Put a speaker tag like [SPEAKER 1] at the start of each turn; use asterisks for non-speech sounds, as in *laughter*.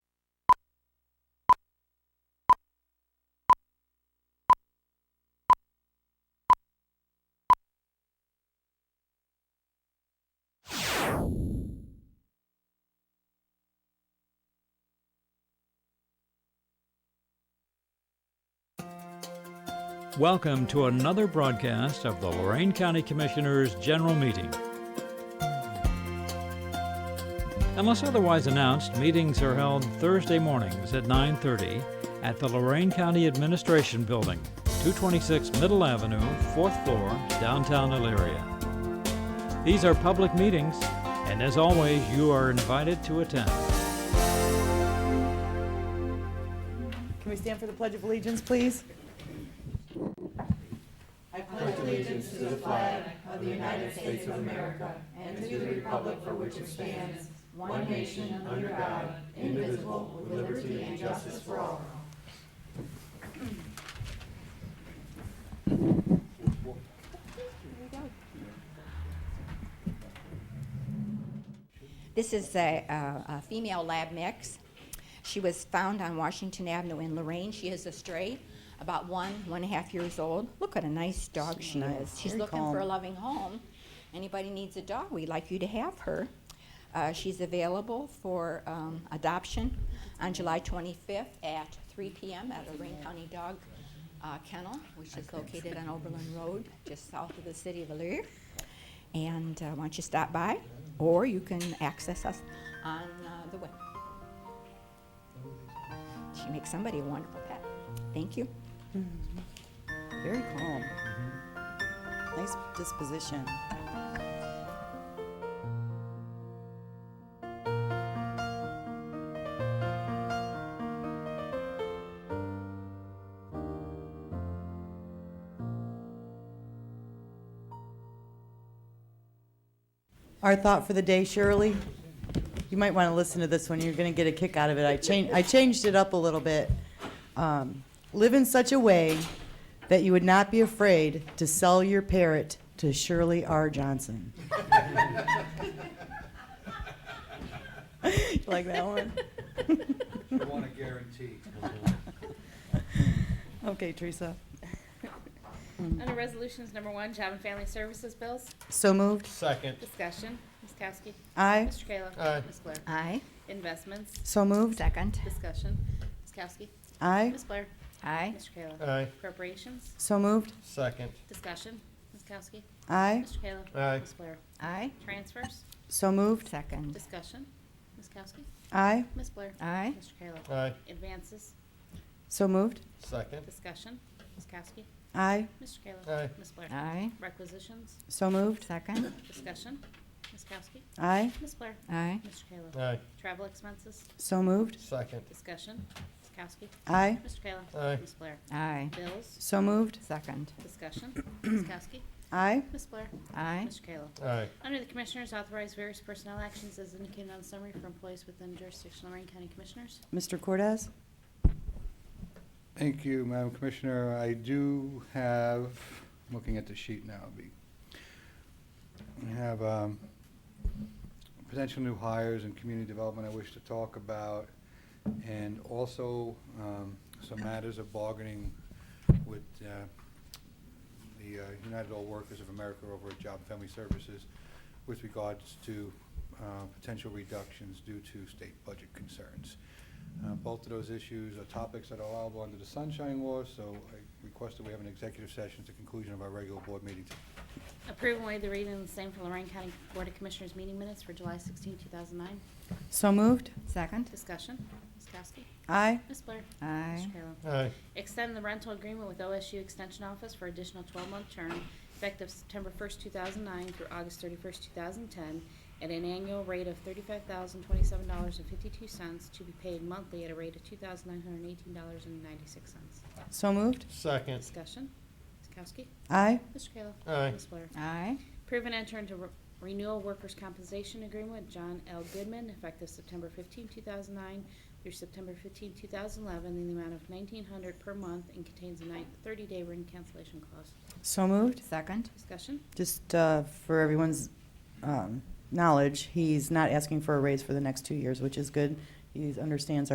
[SPEAKER 1] Welcome to another broadcast of the Lorraine County Commissioners' General Meeting. Unless otherwise announced, meetings are held Thursday mornings at 9:30 at the Lorraine County Administration Building, 226 Middle Avenue, 4th floor, downtown Elyria. These are public meetings, and as always, you are invited to attend.
[SPEAKER 2] Can we stand for the Pledge of Allegiance, please?
[SPEAKER 3] This is a, a, a female lab mix. She was found on Washington Avenue in Lorraine. She is a stray, about one, one and a half years old. Look what a nice dog she is. She's
[SPEAKER 2] very
[SPEAKER 3] looking
[SPEAKER 2] calm.
[SPEAKER 3] for a loving home. Anybody needs a dog, we'd like you to have her. Uh, she's available for um, adoption on July 25th at 3 p.m. at Lorraine County Dog uh, Kennel, which is located on Oberlin Road, just south of the city of Elyria. And uh, why don't you stop by, or you can access us on uh, the web. She makes somebody a wonderful pet. Thank you.
[SPEAKER 2] Very calm. Nice disposition. Our thought for the day, Shirley, you might want to listen to this one. You're going to get a kick out of it. I changed, I changed it up a little bit. Um, live in such a way that you would not be afraid to sell your parrot to Shirley R. Johnson. *laughs* You like that one? *laughs*
[SPEAKER 4] I want a guarantee.
[SPEAKER 2] Okay, Teresa.
[SPEAKER 5] *laughs* Under Resolutions Number One, Job and Family Services Bills,
[SPEAKER 2] So moved.
[SPEAKER 4] Second,
[SPEAKER 5] discussion, Ms. Kowski.
[SPEAKER 2] Aye.
[SPEAKER 5] Mr. Kayla.
[SPEAKER 4] Aye.
[SPEAKER 5] Ms. Blair.
[SPEAKER 3] Aye.
[SPEAKER 5] Investments,
[SPEAKER 2] So moved.
[SPEAKER 3] Second.
[SPEAKER 5] discussion, Ms. Kowski.
[SPEAKER 2] Aye.
[SPEAKER 5] Ms. Blair.
[SPEAKER 3] Aye.
[SPEAKER 5] Mr. Kayla.
[SPEAKER 4] aye,
[SPEAKER 5] Appropriations,
[SPEAKER 2] So moved.
[SPEAKER 4] second,
[SPEAKER 5] discussion, Ms. Kowski.
[SPEAKER 2] Aye.
[SPEAKER 5] Mr. Kayla.
[SPEAKER 4] Aye.
[SPEAKER 5] Ms. Blair.
[SPEAKER 3] Aye.
[SPEAKER 5] Transfers,
[SPEAKER 2] So moved.
[SPEAKER 3] Second.
[SPEAKER 5] discussion, Ms. Kowski.
[SPEAKER 2] Aye.
[SPEAKER 5] Ms. Blair.
[SPEAKER 3] Aye.
[SPEAKER 5] Mr. Kayla.
[SPEAKER 4] aye,
[SPEAKER 5] Advances,
[SPEAKER 2] So moved.
[SPEAKER 4] second,
[SPEAKER 5] discussion, Ms. Kowski.
[SPEAKER 2] Aye.
[SPEAKER 5] Mr.
[SPEAKER 4] Aye.
[SPEAKER 5] Kayla. Ms. Blair.
[SPEAKER 3] Aye.
[SPEAKER 5] Requisitions,
[SPEAKER 2] So moved.
[SPEAKER 3] Second.
[SPEAKER 5] discussion, Ms. Kowski.
[SPEAKER 2] Aye.
[SPEAKER 5] Ms. Blair.
[SPEAKER 3] Aye.
[SPEAKER 5] Mr. Kayla.
[SPEAKER 4] aye,
[SPEAKER 5] Travel expenses,
[SPEAKER 2] So moved.
[SPEAKER 4] second,
[SPEAKER 5] discussion, Ms. Kowski.
[SPEAKER 2] Aye.
[SPEAKER 5] Mr. Kayla.
[SPEAKER 4] Aye.
[SPEAKER 5] Ms. Blair.
[SPEAKER 3] Aye.
[SPEAKER 5] Bills,
[SPEAKER 2] So moved.
[SPEAKER 3] Second.
[SPEAKER 5] discussion, Ms. Kowski.
[SPEAKER 2] Aye.
[SPEAKER 5] Ms. Blair.
[SPEAKER 3] Aye.
[SPEAKER 5] Mr. Kayla.
[SPEAKER 4] aye,
[SPEAKER 5] Under the Commissioners, authorize various personnel actions as indicated on the summary for employees within jurisdiction of Lorraine County Commissioners.
[SPEAKER 2] Mr. Cortez?
[SPEAKER 6] Thank you, Madam Commissioner. I do have, I'm looking at the sheet now, be- we have um, potential new hires and community development I wish to talk about, and also um, some matters of bargaining with uh, the uh, United All Workers of America over at Job and Family Services with regards to uh, potential reductions due to state budget concerns. Uh, Both of those issues are topics that are allowable under the Sunshine Law, so I request that we have an executive session at the conclusion of our regular board meeting today.
[SPEAKER 5] Approve and waive the reading of the same for Lorraine County Board of Commissioners meeting minutes for July 16, 2009.
[SPEAKER 2] So moved.
[SPEAKER 3] Second.
[SPEAKER 5] Discussion, Ms. Kowski.
[SPEAKER 2] Aye.
[SPEAKER 5] Ms. Blair.
[SPEAKER 3] Aye.
[SPEAKER 5] Mr. Kayla.
[SPEAKER 4] aye,
[SPEAKER 5] Extend the rental agreement with OSU Extension Office for additional 12-month term effective September 1st, 2009 through August 31st, 2010, at an annual rate of $35,027.52 to be paid monthly at a rate of $2,918.96.
[SPEAKER 2] So moved.
[SPEAKER 4] second,
[SPEAKER 5] Discussion. Ms. Kowski.
[SPEAKER 2] Aye.
[SPEAKER 5] Mr. Kayla.
[SPEAKER 4] Aye.
[SPEAKER 5] Ms. Blair.
[SPEAKER 3] Aye.
[SPEAKER 5] Approve and enter into re- renewal workers' compensation agreement with John L. Goodman effective September 15, 2009 through September 15, 2011 in the amount of 1900 per month and contains a nine- 30-day written cancellation clause.
[SPEAKER 2] So moved.
[SPEAKER 3] Second.
[SPEAKER 5] Discussion?
[SPEAKER 2] Just uh, for everyone's um, knowledge, he's not asking for a raise for the next two years, which is good. He understands